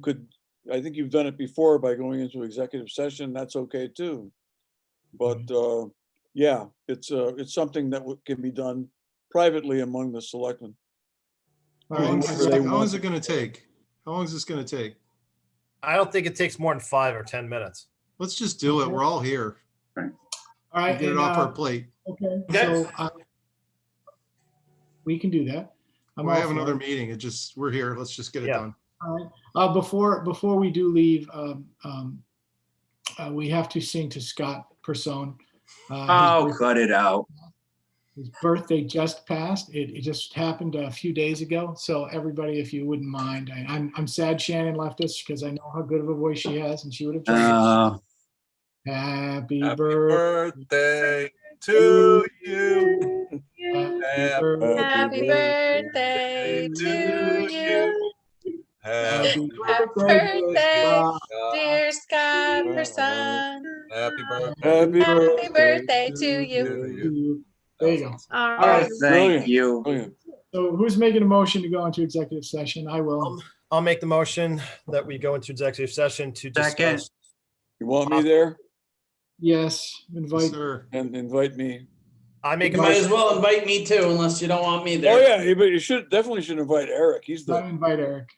could, I think you've done it before by going into executive session, that's okay too. But, uh, yeah, it's, uh, it's something that would- can be done privately among the selectmen. All right, Whatever so they how long want. is it gonna take? How long is this gonna take? I don't think it takes more than five or 10 minutes. Let's just do it. We're all here. All We'll right. Get it and, off uh, our plate. Okay, Yes. so uh, we can do that. I'm We all have for another it. meeting. It just, we're here. Let's just get it Yeah. done. All right. Uh, Before, before we do leave, um, um, uh, we have to sing to Scott Person. Uh, Oh, his birth- cut it out. His birthday just passed. It, it just happened a few days ago. So everybody, if you wouldn't mind, I, I'm, I'm sad Shannon left us because I know how good of a voice she has and she would have. joined us. Uh, Happy Happy birthday. birthday to you. Happy birthday to you, Happy birthday, birthday. dear Scott Person. Happy birthday. Happy Happy birthday to you. you. There you go. All right. right. thank you. Brilliant. So who's making a motion to go into executive session? I will. I'll make the motion that we go into executive session to Second. discuss. You want me there? Yes, invite. Sir, And invite me. I make a Might Might as motion, well invite me too, unless you don't want me Oh, there. yeah, you- but you should, definitely should invite Eric, he's Don't Um, the, uh, invite Eric.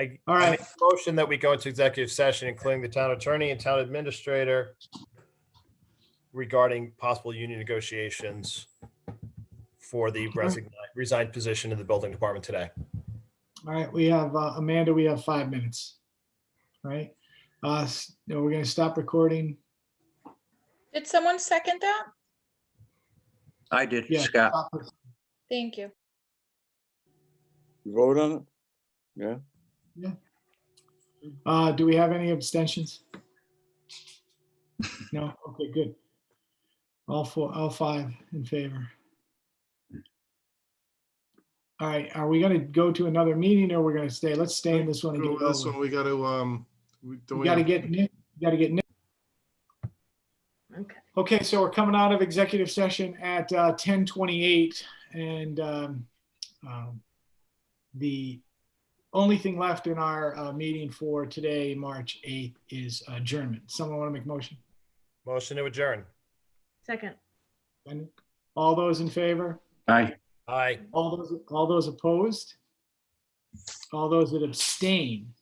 I All I right. make a motion that we go into executive session, including the town attorney and town administrator regarding possible union negotiations for the resign- resigned position in the building department today. All right, we have uh, Amanda, we have five minutes. Right? Uh, s- you know, we're gonna stop recording. Did someone second that? I did, Yeah. Scott. Stop it. Thank you. you vote on it? Uh, do we have any abstentions? No, okay, good. All four, all five in favor. All right, are we gonna go to another meeting or we're gonna stay? Let's stay in this one and get go it with this over. one, with. we gotta, um, we don't You we gotta have- get Nick, you gotta get Nick. Okay. Okay, so we're coming out of executive session at uh, 10:28 and um, um, the only thing left in our uh, meeting for today, March 8th, is adjournment. Someone want to make a motion? Motion to adjourn. Second. All those in favor? Bye. Aye. All those, all those opposed? All those that abstain?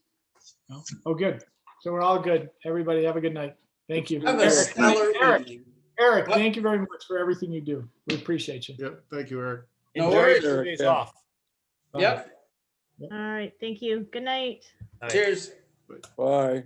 No? Oh, good. So we're all good. Everybody have a good night. Thank you. Have a Eric, stellar Eric, evening. Eric, thank you very much for everything you do. We appreciate you. Yep, thank you, Eric. No Enjoy worries. your days Yeah. off. Yep, All right, thank you. Good night. Aye. cheers. Bye.